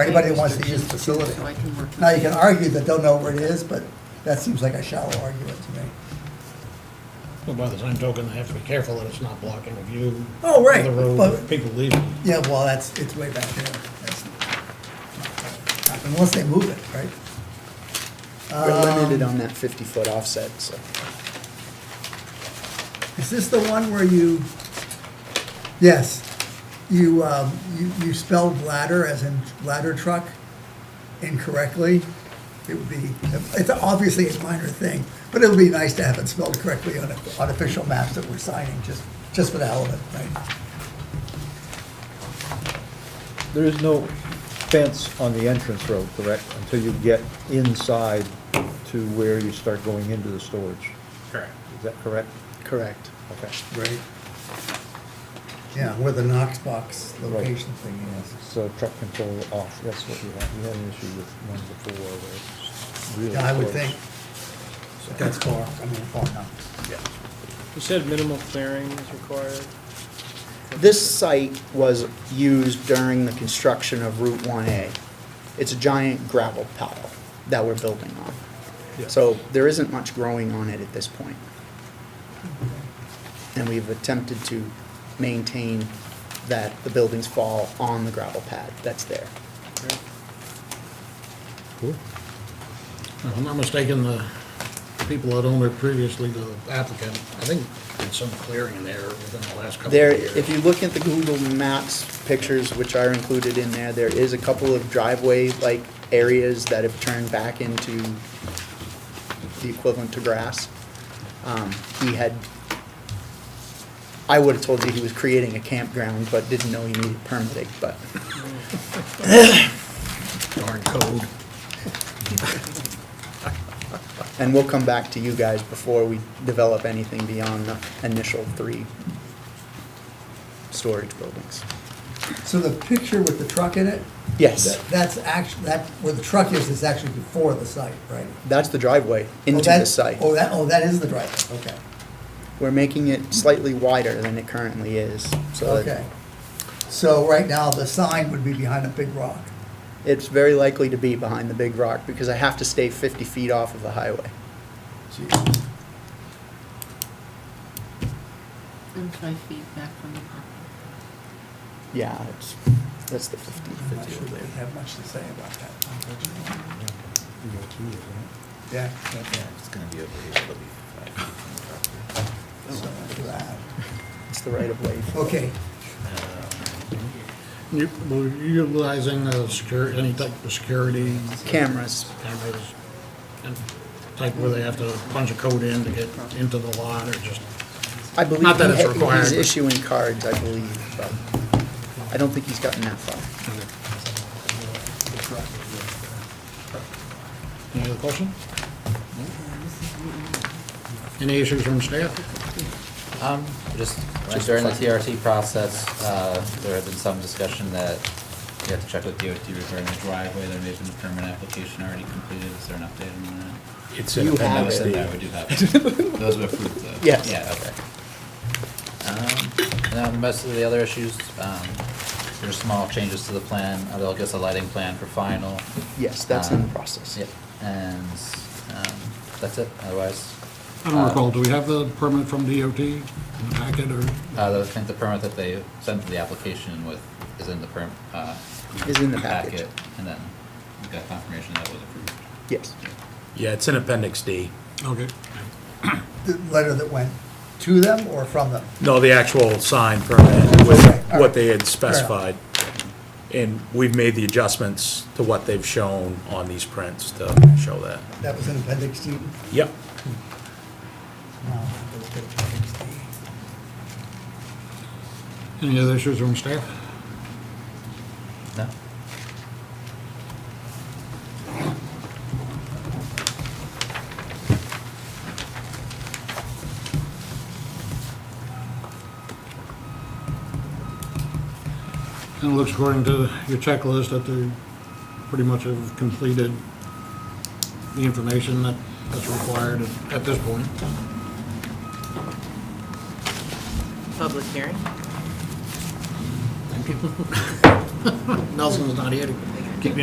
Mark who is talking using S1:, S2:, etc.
S1: for anybody who wants to use the facility.
S2: So I can work with
S1: Now, you can argue that they'll know where it is, but that seems like a shallow argument to me.
S3: Well, by the same token, they have to be careful that it's not blocking a view.
S1: Oh, right,
S3: Of the road,
S1: but-
S3: people leaving.
S1: Yeah, well, that's, it's way back there. That's not gonna happen, Unless they move it, right?
S4: We're limited
S1: Um,
S4: on that 50-foot offset, so.
S1: Is this the one where you, yes, you, um, you, you spelled ladder as in ladder truck incorrectly? It would be, it's obviously a minor thing, but it would be nice to have it spelled correctly on, on official maps that we're signing, just, just for the hell of it, right?
S5: There is no fence on the entrance road, correct, until you get inside to where you start going into the storage?
S3: Correct.
S5: Is that correct?
S4: Correct.
S5: Okay.
S1: Right. Yeah, where the Knox box location thing is.
S5: So truck control off, that's what you had, you had an issue with one before where it's really
S1: Yeah, I would
S5: close.
S1: think, but that's far, I mean, far enough.
S6: You said minimal clearing is required.
S4: This site was used during the construction of Route 1A. It's a giant gravel pile that we're building on. So there isn't much growing on it at this point. And we've attempted to maintain that the buildings fall on the gravel pad that's there.
S3: If I'm not mistaken, the people that owned it previously, the applicant, I think did some clearing in there within the last couple of
S4: There,
S3: years.
S4: if you look at the Google Maps pictures, which are included in there, there is a couple of driveway-like areas that have turned back into the equivalent to grass. Um, He had, I would have told you he was creating a campground, but didn't know he needed permitting, but
S3: Darn code.
S4: And we'll come back to you guys before we develop anything beyond the initial three storage buildings.
S1: So the picture with the truck in it,
S4: Yes,
S1: that- that's actually, that, where the truck is, is actually before the site, right?
S4: that's the driveway
S1: Oh,
S4: into
S1: that-
S4: the site.
S1: Oh, that, oh, that is the driveway, okay,
S4: We're making it slightly wider than it currently is, so
S1: okay.
S4: that
S1: So right now, the sign would be behind a big rock.
S4: it's very likely to be behind the big rock because I have to stay 50 feet off of the highway.
S1: Jeez.
S2: And five feet back from the property.
S4: Yeah, it's, that's the 50
S1: I'm not sure
S4: foot.
S1: they have much to say about that, unfortunately. Yeah.
S7: It's gonna be over here, it'll be five feet from the property.
S1: so much for that.
S4: It's the right of way.
S1: Okay,
S3: You- Were you utilizing uh, secur any type of security?
S4: Cameras.
S3: Cameras, and type where they have to punch a code in to get into the lot, or just,
S4: I believe
S3: Not that
S4: he
S3: it's
S4: ha-
S3: required,
S4: He's
S3: but-
S4: issuing cards, I believe, but I don't think he's gotten that far.
S3: any other question? Any issues from staff?
S7: Um, just like during the TRT process, uh, there had been some discussion that you have to check with DOT regarding the driveway, there may have been a permit application already completed, is there an update on that?
S8: It's
S4: You
S8: in
S4: have
S7: I noticed
S4: it.
S7: that,
S8: appendix
S7: we
S8: D.
S7: do have, it. those were approved though.
S4: Yes.
S7: Yeah, okay. Um, and then most of the other issues, um, there's small changes to the plan, uh, I'll get the lighting plan for final.
S4: Yes, that's in the
S7: Um,
S4: process.
S7: Yep, and, um, that's it, otherwise,
S3: I don't recall, do we have the permit from DOT in the packet, or?
S7: Uh, I think the permit that they sent the application with is in the perm, uh.
S4: Is in the package.
S7: And then we got confirmation that was approved.
S4: Yes.
S8: Yeah, it's in appendix D.
S3: Okay.
S1: the letter that went to them or from them?
S8: No, the actual sign permit with
S1: Okay, all right.
S8: what they had specified. And we've made the adjustments to what they've shown on these prints to show that.
S1: That was an appendix D?
S8: Yep.
S1: No, it was appendix D.
S3: Any other issues from staff?
S7: No?
S3: And it looks according to your checklist that they pretty much have completed the information that, that's required at- at this point.
S2: Public hearing?
S3: Nelson's not here to